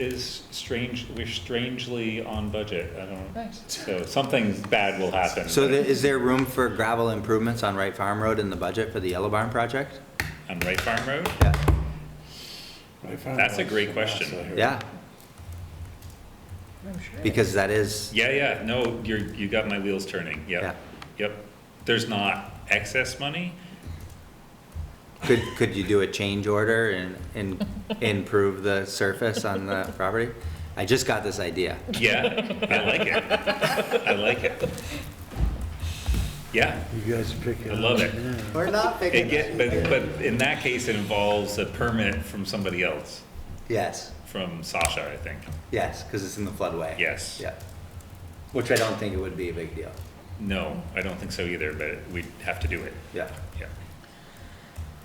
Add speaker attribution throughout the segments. Speaker 1: is strange, we're strangely on budget, I don't,
Speaker 2: Right.
Speaker 1: so something bad will happen.
Speaker 3: So
Speaker 1: but
Speaker 3: there, is there room for gravel improvements on Wright Farm Road in the budget for the Yellow Barn project?
Speaker 1: On Wright Farm Road?
Speaker 3: Yeah,
Speaker 1: That's a great question.
Speaker 3: yeah,
Speaker 2: I'm sure.
Speaker 3: because that is,
Speaker 1: Yeah, yeah, no, you're, you got my wheels turning,
Speaker 3: Yeah.
Speaker 1: yep, yep. There's not excess money,
Speaker 3: could, could you do a change order and, and improve the surface on the property? I just got this idea.
Speaker 1: yeah, I like it, I like it. Yeah,
Speaker 4: You guys pick it
Speaker 1: I
Speaker 4: up.
Speaker 1: love it.
Speaker 3: We're not
Speaker 1: It get, but, but in that case, it involves a permit from somebody else,
Speaker 3: Yes,
Speaker 1: from Sasha, I think.
Speaker 3: yes, because it's in the floodway.
Speaker 1: Yes.
Speaker 3: Yeah, which I don't think it would be a big deal,
Speaker 1: No, I don't think so either, but we'd have to do it,
Speaker 3: yeah.
Speaker 1: yeah.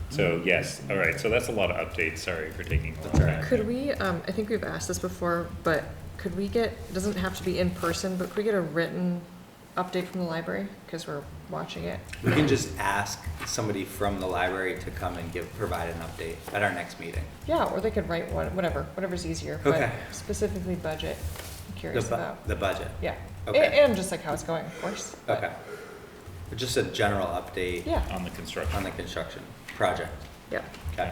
Speaker 1: So, yes, all right, so that's a lot of updates, sorry for taking a long
Speaker 3: That's all right.
Speaker 1: time.
Speaker 2: Could we, um, I think we've asked this before, but could we get, it doesn't have to be in person, but could we get a written update from the library? Because we're watching it.
Speaker 3: We can just ask somebody from the library to come and give, provide an update at our next meeting.
Speaker 2: Yeah, or they could write one, whatever, whatever's easier. but
Speaker 3: Okay.
Speaker 2: Specifically budget, I'm
Speaker 3: The
Speaker 2: curious
Speaker 3: bu-
Speaker 2: about.
Speaker 3: the budget.
Speaker 2: Yeah. A-
Speaker 3: Okay.
Speaker 2: And just like how it's going, of course. but-
Speaker 3: Okay. Just a general update
Speaker 2: Yeah,
Speaker 1: On the construction.
Speaker 3: on the construction project.
Speaker 2: yeah.
Speaker 3: Okay.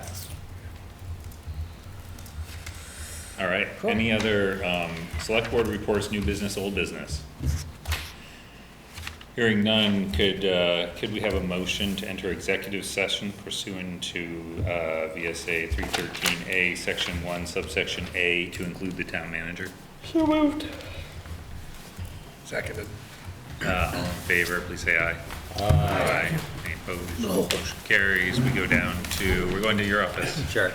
Speaker 1: All right,
Speaker 2: Cool.
Speaker 1: any other, um, select board reports, new business, old business? Hearing none, could, uh, could we have a motion to enter executive session pursuant to, uh, VSA three thirteen A, section one, subsection A, to include the town manager?
Speaker 4: So moved. Seconded.
Speaker 1: Uh, all in favor, please say aye. Aye. Any opposed? Motion carries, we go down to, we're going to your office.
Speaker 3: Sure.